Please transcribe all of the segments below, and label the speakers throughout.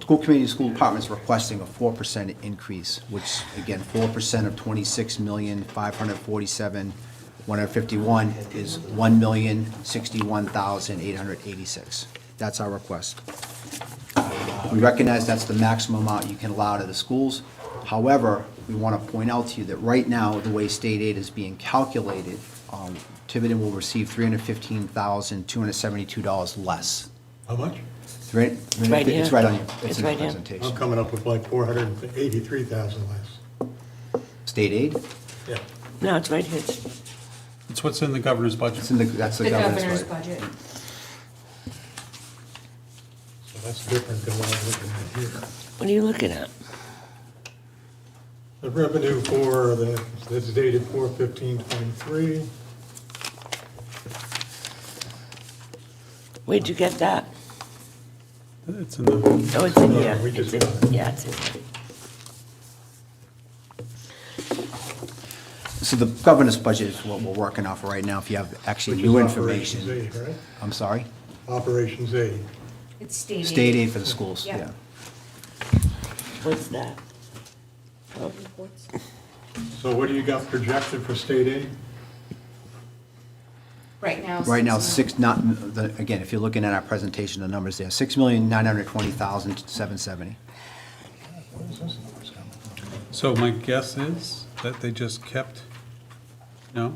Speaker 1: School committee, school department's requesting a four percent increase, which, again, four percent of twenty-six million, five hundred forty-seven, one hundred fifty-one is one million, sixty-one thousand, eight hundred eighty-six. That's our request. We recognize that's the maximum amount you can allow to the schools. However, we want to point out to you that right now, the way state aid is being calculated, um, Tiverton will receive three hundred fifteen thousand, two hundred seventy-two dollars less.
Speaker 2: How much?
Speaker 1: It's right,
Speaker 3: right
Speaker 1: it's
Speaker 3: here.
Speaker 1: right on you.
Speaker 3: It's
Speaker 1: It's in the
Speaker 3: right here.
Speaker 2: I'm
Speaker 1: presentation.
Speaker 2: coming up with like four hundred and eighty-three thousand less.
Speaker 1: State aid,
Speaker 2: Yeah.
Speaker 3: No, it's right here. It's-
Speaker 4: It's what's in the governor's budget.
Speaker 1: it's in the, that's the
Speaker 5: The
Speaker 1: governor's
Speaker 5: governor's
Speaker 1: budget.
Speaker 5: budget.
Speaker 2: So that's different than what I'm looking at here.
Speaker 3: What are you looking at?
Speaker 2: The revenue for the, this is dated four fifteen twenty-three.
Speaker 3: Where'd you get that?
Speaker 4: It's in the,
Speaker 3: Oh, it's in here.
Speaker 2: we just
Speaker 3: It's in-
Speaker 2: got it.
Speaker 3: Yeah, it's in here.
Speaker 1: So the governor's budget is what we're working off of right now, if you have actually
Speaker 2: which
Speaker 1: new
Speaker 2: is Operations
Speaker 1: information.
Speaker 2: aid, right?
Speaker 1: I'm sorry?
Speaker 2: Operations aid.
Speaker 5: It's state aid.
Speaker 1: State aid for the schools,
Speaker 5: Yeah.
Speaker 1: yeah.
Speaker 3: What's that? Oh,
Speaker 2: So what do you got projected for state aid?
Speaker 5: Right now.
Speaker 1: Right now,
Speaker 5: six
Speaker 1: six, not, the- again, if you're looking at our presentation, the numbers there, six million, nine hundred twenty thousand, seven seventy.
Speaker 2: What is this number coming from?
Speaker 4: so my guess is that they just kept, no?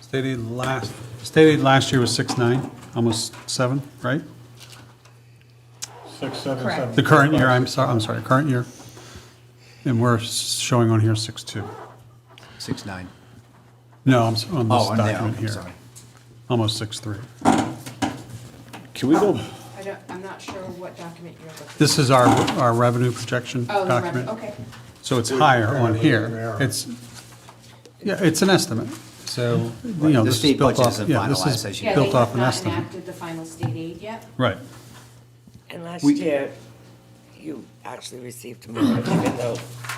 Speaker 4: State aid last, state aid last year was six nine, almost seven, right?
Speaker 2: Six, seven,
Speaker 5: Correct.
Speaker 2: seven.
Speaker 4: The current year, I'm sorry, I'm sorry, current year. And we're showing on here six two.
Speaker 1: Six nine.
Speaker 4: No, I'm, s- on this
Speaker 1: Oh, I'm there,
Speaker 4: document
Speaker 1: I'm
Speaker 4: here,
Speaker 1: sorry.
Speaker 4: almost six three.
Speaker 6: Can we go,
Speaker 5: I don't, I'm not sure what document you're looking. at.
Speaker 4: This is our, our revenue projection
Speaker 5: Oh, the revenue,
Speaker 4: document.
Speaker 5: okay.
Speaker 4: So it's higher on
Speaker 2: Apparently,
Speaker 4: here.
Speaker 2: error.
Speaker 4: It's, yeah, it's an estimate. So, you
Speaker 1: The
Speaker 4: know, this is
Speaker 1: state
Speaker 4: built
Speaker 1: budget
Speaker 4: off,
Speaker 1: isn't
Speaker 4: yeah, this
Speaker 1: finalized, as
Speaker 4: is
Speaker 1: you-
Speaker 5: Yeah, they
Speaker 4: built off
Speaker 5: have
Speaker 4: an
Speaker 5: not
Speaker 4: estimate.
Speaker 5: enacted the final state aid yet.
Speaker 4: Right.
Speaker 3: And last
Speaker 1: We-
Speaker 3: year, you actually received more, even though,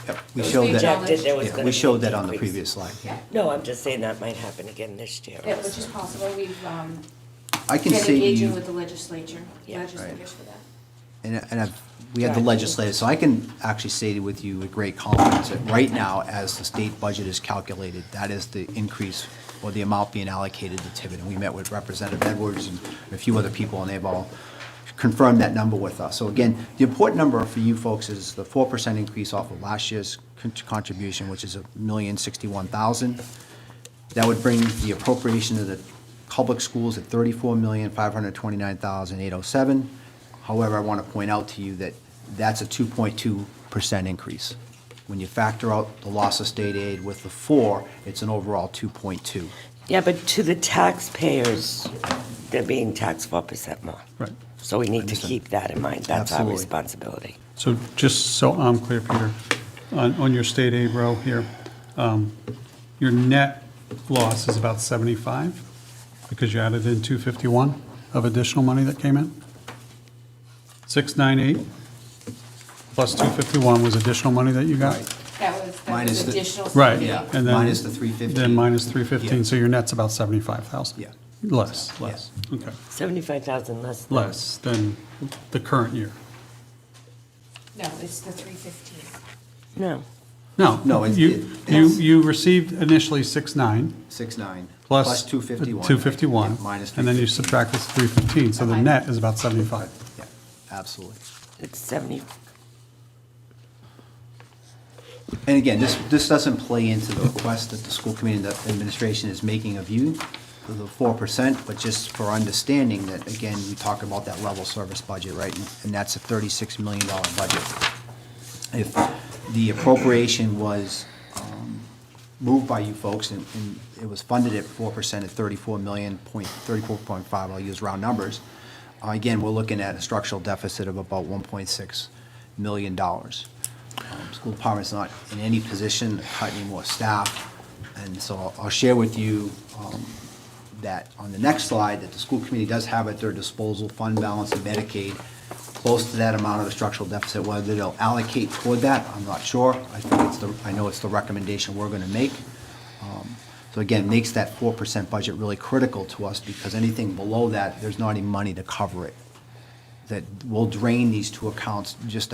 Speaker 1: Yep, We
Speaker 3: It was
Speaker 1: showed that,
Speaker 3: rejected, there was
Speaker 1: yeah,
Speaker 3: gonna
Speaker 1: we
Speaker 3: be
Speaker 1: showed that on the
Speaker 3: increase.
Speaker 1: previous slide.
Speaker 5: Yeah,
Speaker 3: no, I'm just saying that might happen again this year.
Speaker 5: yeah, which is possible. We've um,
Speaker 1: I
Speaker 5: been
Speaker 1: can see
Speaker 5: engaging
Speaker 1: you,
Speaker 5: with the legislature,
Speaker 3: Yeah.
Speaker 5: legislators for that.
Speaker 1: and, and I've, we had the
Speaker 3: Right.
Speaker 1: legislative, so I can actually say to with you with great confidence that right now, as the state budget is calculated, that is the increase or the amount being allocated to Tiverton. We met with Representative Edwards and a few other people, and they've all confirmed that number with us. So again, the important number for you folks is the four percent increase off of last year's con- contribution, which is a million sixty-one thousand. That would bring the appropriation to the public schools at thirty-four million, five hundred twenty-nine thousand, eight oh seven. However, I want to point out to you that that's a two point two percent increase. When you factor out the loss of state aid with the four, it's an overall two point two.
Speaker 3: Yeah, but to the taxpayers, they're being taxed four percent more.
Speaker 4: Right.
Speaker 3: So we need to
Speaker 1: Understand.
Speaker 3: keep that in mind. That's our
Speaker 1: Absolutely.
Speaker 3: responsibility.
Speaker 4: So just so I'm clear, Peter, on, on your state aid row here, um, your net loss is about 75 because you added in 251 of additional money that came in? 698 plus 251 was additional money that you got?
Speaker 5: That was, that
Speaker 1: Minus
Speaker 5: was
Speaker 1: the-
Speaker 5: additional. state
Speaker 4: Right.
Speaker 5: aid.
Speaker 1: Yeah.
Speaker 4: and then-
Speaker 1: Minus the 315.
Speaker 4: Then minus 315,
Speaker 1: Yeah.
Speaker 4: so your net's about 75,000.
Speaker 1: Yeah.
Speaker 4: Less, less, okay.
Speaker 3: Seventy-five thousand less. than-
Speaker 4: Less than the current year.
Speaker 5: No, it's the three fifteen.
Speaker 3: No,
Speaker 4: No.
Speaker 1: No, it's-
Speaker 4: You,
Speaker 1: it-
Speaker 4: you, you received initially six nine
Speaker 1: Six nine.
Speaker 4: plus.
Speaker 1: Plus two fifty-one.
Speaker 4: Two fifty-one.
Speaker 1: Minus.
Speaker 4: And then you
Speaker 1: 315.
Speaker 4: subtract this three fifteen, so the
Speaker 5: Okay.
Speaker 4: net is about seventy-five.
Speaker 1: Yeah, Absolutely.
Speaker 3: it's seventy,
Speaker 1: And again, this, this doesn't play into the request that the school committee and the administration is making of you, for the four percent, but just for understanding that, again, we talk about that level service budget, right? And that's a thirty-six million dollar budget. If the appropriation was um, moved by you folks and, and it was funded at four percent at thirty-four million, point, thirty-four point five, I'll use round numbers, uh, again, we're looking at a structural deficit of about one point six million dollars. Um, School department's not in any position to cut any more staff, and so I'll- I'll share with you um, that on the next slide, that the school committee does have at their disposal fund balance in Medicaid, close to that amount of the structural deficit, whether they'll allocate toward that, I'm not sure. I think it's the, I know it's the recommendation we're gonna make. Um, So again, makes that four percent budget really critical to us, because anything below that, there's not any money to cover it. That will drain these two accounts just